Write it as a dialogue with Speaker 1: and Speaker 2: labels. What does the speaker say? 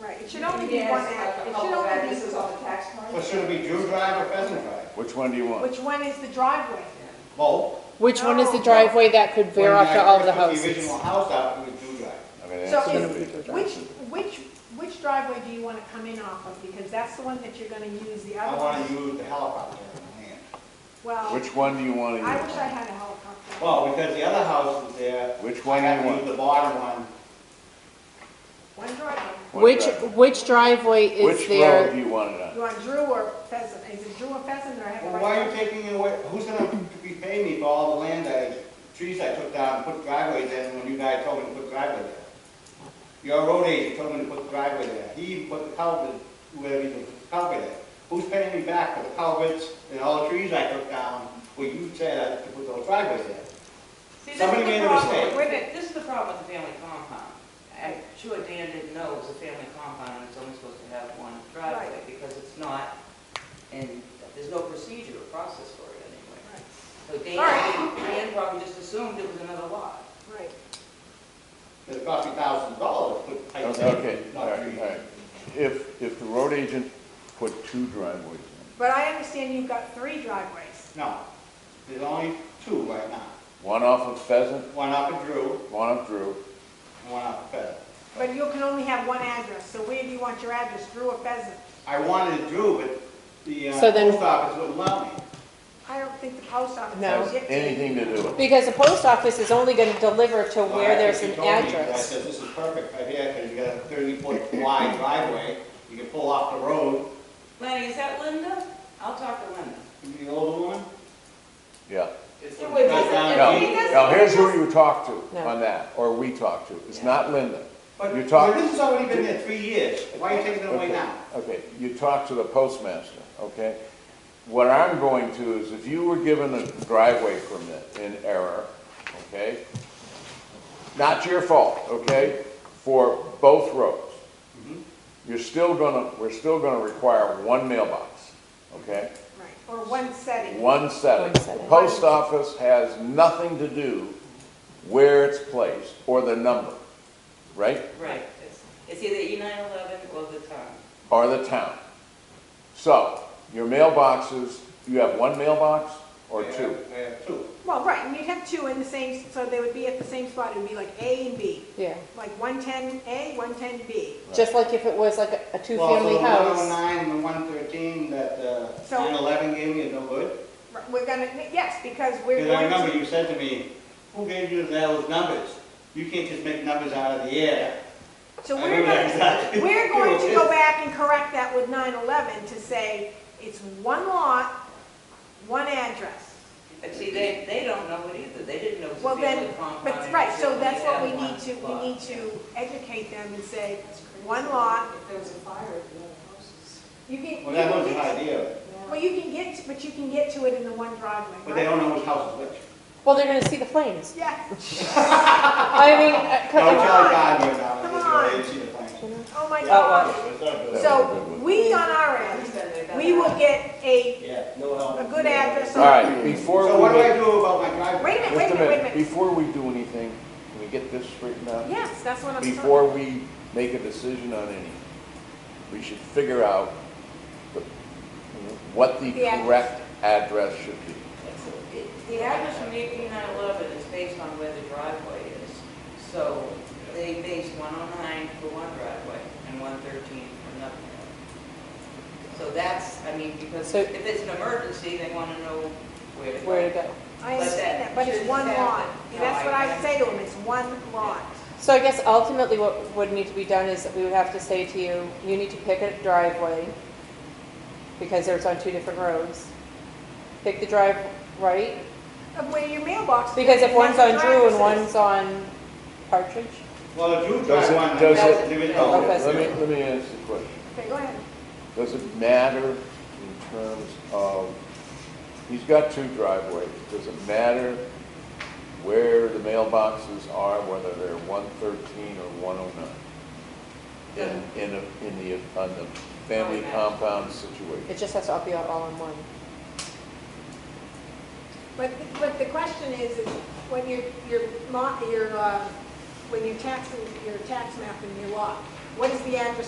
Speaker 1: Right, it should only be one act, it should only
Speaker 2: This is
Speaker 1: be,
Speaker 2: on the tax
Speaker 3: Well,
Speaker 2: card.
Speaker 3: should it be Drew Drive or Pheasant Drive?
Speaker 4: Which one do you want?
Speaker 1: which one is the driveway?
Speaker 3: Both.
Speaker 5: Which one is
Speaker 1: No,
Speaker 5: the
Speaker 1: no.
Speaker 5: driveway that could veer
Speaker 3: When
Speaker 5: off to
Speaker 3: I
Speaker 5: all the
Speaker 3: first put The
Speaker 5: houses?
Speaker 3: original house out, it was Drew Drive.
Speaker 4: I mean,
Speaker 1: So
Speaker 4: that's gonna be.
Speaker 1: is, which, which, which driveway do you wanna come in off of? Because that's the one that you're gonna use, the
Speaker 3: I
Speaker 1: other
Speaker 3: want to
Speaker 1: one.
Speaker 3: use the helicopter in hand.
Speaker 1: Well, I wish
Speaker 4: Which one do you want to
Speaker 1: I
Speaker 4: use?
Speaker 1: had a helicopter.
Speaker 3: Well, because the other house is there,
Speaker 4: Which
Speaker 3: I
Speaker 4: one do
Speaker 3: have
Speaker 4: you
Speaker 3: to use the
Speaker 4: want?
Speaker 3: bottom one.
Speaker 1: One driveway.
Speaker 4: What
Speaker 5: Which,
Speaker 4: drive?
Speaker 5: which driveway is
Speaker 4: Which road do
Speaker 5: there?
Speaker 4: you want it on?
Speaker 1: You want Drew or Pheasant? Is it Drew or Pheasant or I have a
Speaker 3: Well, why are you
Speaker 1: right?
Speaker 3: taking it away, who's gonna be paying me for all the land I, trees I took down, and put driveways in, when you guys told me to put driveway there? Your road agent told me to put driveway there, he even put the culvert, whoever even put the culvert there. Who's paying me back for the culverts and all the trees I took down, where you said I had to put those driveways there?
Speaker 6: See, this
Speaker 3: Somebody
Speaker 6: is the
Speaker 3: made a
Speaker 6: problem-
Speaker 3: mistake.
Speaker 6: Wait a minute, this is the problem with the family compound. I'm sure Dan didn't know it was a family compound, and it's only supposed to have one driveway, because it's not, and there's no procedure or process for it anyway. So Dan, Dan probably just assumed it was another lot.
Speaker 1: Right.
Speaker 3: It cost me thousands of dollars to put pipe there.
Speaker 4: Okay, all right, all right. If, if the road agent put two driveways in,
Speaker 1: But I understand you've got three driveways.
Speaker 3: No, there's only two right now,
Speaker 4: one off of Pheasant,
Speaker 3: one up at Drew,
Speaker 4: one up Drew,
Speaker 3: and one up at Pheasant.
Speaker 1: But you can only have one address, so where do you want your address, Drew or Pheasant?
Speaker 3: I wanted to do, but the uh,
Speaker 5: So then-
Speaker 3: post office wouldn't allow me.
Speaker 1: I don't think the post office
Speaker 5: No.
Speaker 1: will
Speaker 4: has
Speaker 1: get to you.
Speaker 4: anything to do with it.
Speaker 5: Because the post office is only gonna deliver to
Speaker 3: So I
Speaker 5: where there's
Speaker 3: actually
Speaker 5: an
Speaker 3: told me, I
Speaker 5: address.
Speaker 3: said, this is perfect right here, because you got a thirty-foot wide driveway, you can pull off the road.
Speaker 6: Lenny, is that Linda? I'll talk to Linda.
Speaker 3: The older one,
Speaker 4: Yeah.
Speaker 6: It's
Speaker 1: Yeah,
Speaker 6: the-
Speaker 1: wait,
Speaker 6: it's
Speaker 3: doesn't-
Speaker 6: the-
Speaker 4: Now,
Speaker 3: if he
Speaker 6: it's the-
Speaker 4: now here's who you talk to
Speaker 5: No.
Speaker 4: on that, or we talk to. It's
Speaker 6: Yeah.
Speaker 4: not Linda.
Speaker 3: but
Speaker 4: You
Speaker 3: but
Speaker 4: talk-
Speaker 3: this has already been there three years, why are you taking it away
Speaker 4: Okay,
Speaker 3: now?
Speaker 4: Okay, you talk to the postmaster, okay? What I'm going to is if you were given a driveway permit in error, okay? Not your fault, okay, for both roads. You're still gonna, we're still gonna require one mailbox, okay?
Speaker 1: Right, or one setting.
Speaker 4: One setting.
Speaker 5: One
Speaker 4: The
Speaker 5: setting.
Speaker 4: post office has nothing to do where it's placed or the number, right?
Speaker 6: Right, it's, it's either E nine eleven or the town.
Speaker 4: or the town. So, your mailboxes, you have one mailbox or
Speaker 3: Yeah,
Speaker 4: two?
Speaker 3: yeah, Two.
Speaker 1: Well, right, and you'd have two in the same, so they would be at the same spot, it would be like A and B,
Speaker 5: Yeah,
Speaker 1: like 110A, 110B.
Speaker 5: just like if it was like a- a
Speaker 3: Well,
Speaker 5: two-family
Speaker 3: so the
Speaker 5: house.
Speaker 3: 109 and the 113 that
Speaker 1: So-
Speaker 3: 911 gave me is no good?
Speaker 1: Right, We're gonna, yes, because we're
Speaker 3: Because I
Speaker 1: going
Speaker 3: remember
Speaker 1: to,
Speaker 3: you said to me, who gave you those numbers? You can't just make numbers out of the air.
Speaker 1: so
Speaker 3: I
Speaker 1: we're
Speaker 3: remember
Speaker 1: gonna,
Speaker 3: exactly.
Speaker 1: we're going to go back and correct that with 9/11 to say it's one lot, one address.
Speaker 6: But see, they, they don't know it either, they didn't know it was a
Speaker 1: Well,
Speaker 6: family
Speaker 1: then,
Speaker 6: compound.
Speaker 1: but,
Speaker 6: and
Speaker 1: right,
Speaker 6: it's
Speaker 1: so
Speaker 6: only
Speaker 1: that's what
Speaker 6: had
Speaker 1: we
Speaker 6: one
Speaker 1: need to,
Speaker 6: lot.
Speaker 1: we need to educate them and say, one lot.
Speaker 2: If there was a fire at the other houses.
Speaker 1: You can, you
Speaker 3: Well, that
Speaker 1: can
Speaker 3: was an
Speaker 1: get,
Speaker 3: idea,
Speaker 1: well, you can get, but you can get to it in the one driveway,
Speaker 3: but they
Speaker 1: right?
Speaker 3: don't know whose house is which.
Speaker 5: Well, they're gonna see the flames.
Speaker 1: Yeah,
Speaker 5: I mean, uh,
Speaker 3: No,
Speaker 5: come
Speaker 3: Charlie
Speaker 5: on.
Speaker 3: Gardner went down and
Speaker 1: Come
Speaker 3: just
Speaker 1: on.
Speaker 3: go, they didn't see the plans.
Speaker 1: oh my
Speaker 3: Yeah.
Speaker 1: God.
Speaker 3: It's not good.
Speaker 1: So, we on our end, we will get a,
Speaker 3: Yeah, no help.
Speaker 1: a good address
Speaker 4: All
Speaker 1: on.
Speaker 4: right,
Speaker 3: So
Speaker 4: before
Speaker 3: what do
Speaker 4: we
Speaker 3: I
Speaker 4: get,
Speaker 3: do about my driveway?
Speaker 1: Wait a minute, wait
Speaker 4: just
Speaker 1: a minute, wait
Speaker 4: a minute,
Speaker 1: a minute.
Speaker 4: before we do anything, can we get this straightened out?
Speaker 1: Yes, that's what I'm talking
Speaker 4: Before we make a decision on any, we should figure out the- what the
Speaker 1: The address.
Speaker 4: correct address should be.
Speaker 6: It- The address from E nine eleven is based on where the driveway is, so they base one oh nine for one driveway and one thirteen for another. driveway. So that's, I mean, because
Speaker 5: So-
Speaker 6: if it's an emergency, they wanna know where to go.
Speaker 5: Where to go?
Speaker 1: I understand that, but it's one lot. And that's what I say to them, it's one lot.
Speaker 5: So I guess ultimately what would need to be done is that we would have to say to you, you need to pick a driveway because there's on two different roads. Pick the drive, right?
Speaker 1: Of where your mailbox. is,
Speaker 5: Because if
Speaker 1: that's
Speaker 5: one's
Speaker 1: what
Speaker 5: on Drew and
Speaker 1: drivers
Speaker 5: one's
Speaker 1: is.
Speaker 5: on Partridge,
Speaker 3: Well, the Drew
Speaker 4: Does
Speaker 3: drive
Speaker 4: it-
Speaker 3: one.
Speaker 4: does
Speaker 3: that's
Speaker 5: it-
Speaker 3: individual.
Speaker 5: Okay.
Speaker 4: Let me, let me ask the question.
Speaker 1: Okay, go ahead.
Speaker 4: Does it matter in terms of, he's got two driveways, does it matter where the mailboxes are, whether they're one thirteen or one oh nine? In, in, a- in the, on the family compound situation?
Speaker 5: it just has to all be all in one.
Speaker 1: But, but the question is, is when you're, you're, mo- you're, uh, when you're taxing, your tax map in your lot, what is the address